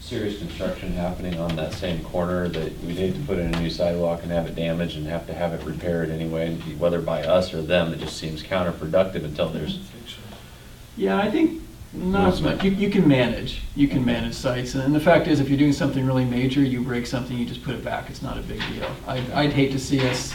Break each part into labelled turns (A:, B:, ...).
A: serious construction happening on that same corner that we'd hate to put in a new sidewalk and have it damaged and have to have it repaired anyway, whether by us or them, it just seems counterproductive until there's,
B: Yeah, I think not as much. You, you can manage, you can manage sites, and the fact is, if you're doing something really major, you break something, you just put it back, it's not a big deal. I'd, I'd hate to see us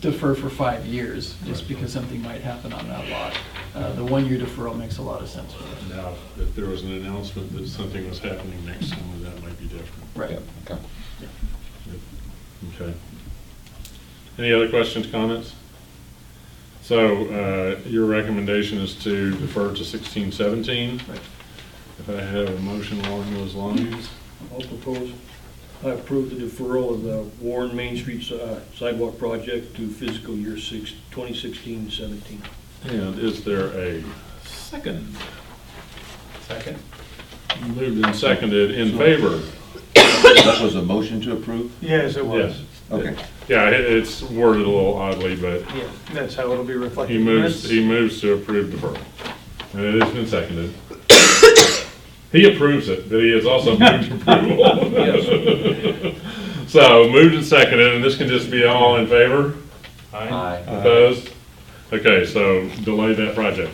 B: defer for five years, just because something might happen on that lot. Uh, the one-year deferral makes a lot of sense for us.
C: Now, if there was an announcement that something was happening next summer, that might be different.
B: Right.
A: Yeah, okay.
C: Okay. Any other questions, comments? So uh, your recommendation is to defer to sixteen seventeen?
B: Right.
C: If I have a motion along those lines,
D: I'll propose, I approve the deferral of the Warren Main Street uh, sidewalk project to fiscal year six, 2016-17.
C: and is there a second?
B: Second?
C: Moved and seconded in favor?
E: That was a motion to approve?
F: Yes, it
C: Yes.
F: was.
E: Okay.
C: Yeah, it- it's worded a little oddly, but
F: Yeah, that's how it'll be reflected.
C: he moves,
F: That's-
C: he moves to approve deferral. And it has been seconded. He approves it, but he has also moved approval. So moved and seconded, and this can just be all in favor?
A: Aye.
C: Opposed? Okay, so delay that project.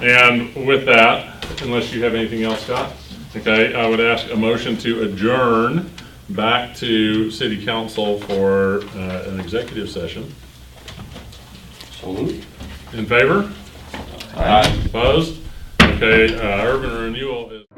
C: And with that, unless you have anything else, Scott, okay, I would ask a motion to adjourn back to city council for uh, an executive session. In favor? Opposed? Okay, uh, urban renewal is.